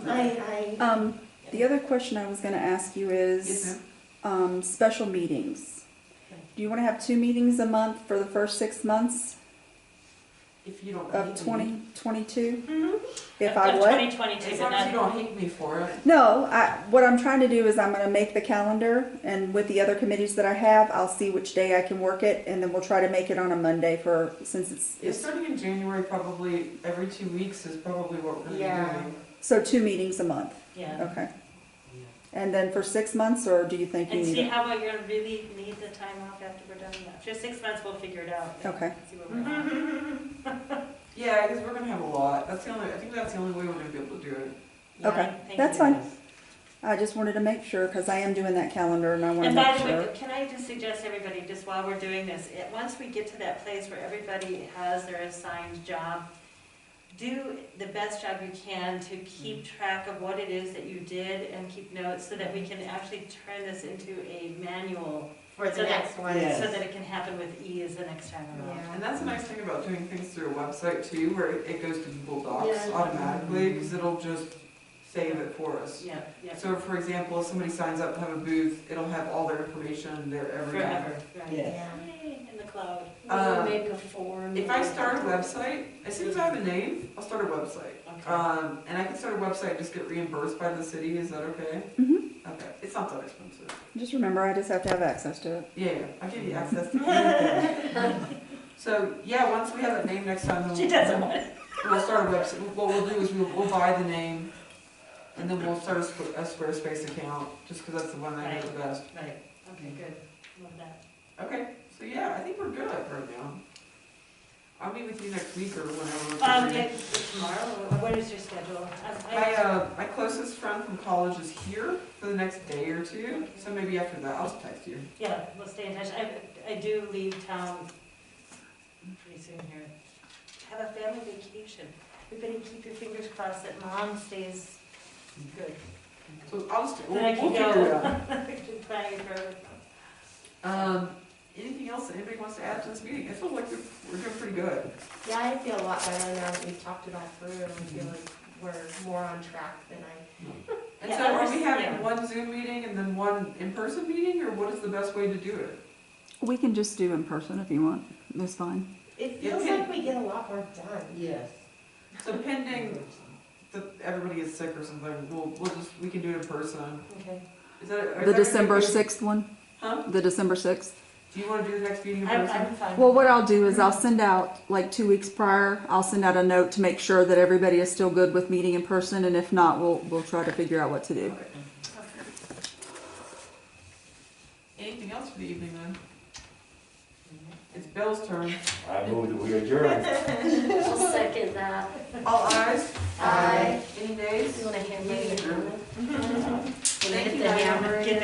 I, I, Um, the other question I was gonna ask you Yes, is, um, special meetings. Do you wanna have two meetings a month for the first six months if you don't hate of me. twenty twenty-two? Mm-hmm. Mhm. If I Of what? 2022, As but long as you not, don't hate me for it. No, I, what I'm trying to do is I'm gonna make the calendar and with the other committees that I have, I'll see which day I can work it and then we'll try to make it on a Monday for, since it's, Yeah, it's, starting in January, probably every two weeks is probably what we're Yeah. doing. so two meetings a month, yeah. okay? And then for six months, or do you think you And need see it? how we really need the time off after we're done that. Just six months, we'll figure it out. Okay. See where we're at. Yeah, because we're gonna have a lot. That's the only. I think that's the only way we're gonna be able to do it. Yeah, Okay, thank that's you. fine. I just wanted to make sure, cause I am doing that calendar and I wanna And make by sure. the way, can I just suggest everybody, just while we're doing this, it- once we get to that place where everybody has their assigned job, do the best job you can to keep Mm-hmm. track of what it is that you did and keep notes so that we can actually turn this into a manual For the next one. so that it can happen with ease the next time around. And that's the nice thing about doing things through a website too, where it goes to Google Docs Yeah. automatically, because it'll just save it for us. Yeah, yeah, So for example, if somebody signs up to have a booth, it'll have all their information there every time. forever, right? Yeah. Yay, in the cloud. Um, Make a form. If I start a website, as soon as I have a name, I'll start a website. Okay. Um, and I can start a website and just get reimbursed by the city, is that okay? Mhm. Okay, it's not that expensive. Just remember, I just have to have access to it. Yeah, yeah, I'll give you access to anything. So, yeah, once we have a name next time, She then doesn't want it. we'll, we'll start a website. What we'll do is we'll, we'll buy the name and then we'll start a Squ- a Squarespace account, just because that's the one I know the best. Right, okay, good, love that. Okay, so yeah, I think we're good right now. I'll meet with you next week or whenever. Um, it- tomorrow, What- what is your schedule? Um, I- I- My, uh, my closest friend from college is here for the next day or two, so maybe after that, I'll just text you. Yeah, we'll stay in touch. I, I do leave town pretty soon here. Have a family vacation. Everybody keep your fingers crossed that mom stays good. So I'll just, we'll, Then I we'll can figure it go. out. Been planning for, Um, anything else that anybody wants to add to this meeting? I feel like we're, we're doing pretty good. Yeah, I feel a lot better now that we've talked it all through and I feel like we're more on track than I. And Yeah, so I are was- we having yeah. one Zoom meeting and then one in-person meeting, or what is the best way to do it? We can just do in person if you want. That's fine. It Yeah, feels we- like we get a lot more done. Yes. So pending that everybody gets sick or something, we'll, we'll just, we can do it in person. Okay. Is that? is that The okay? December sixth one, Huh? the December sixth. Do you wanna do the next meeting in I'm, person? I'm fine. Well, what I'll do is I'll send out, like two weeks prior, I'll send out a note to make sure that everybody is still good with meeting in person, and if not, we'll, we'll try to figure out what to do. Okay. Anything else for the evening then? It's Bill's turn. I move that we adjourn. I'll second that. All ayes? Aye. Any nays? You wanna hand me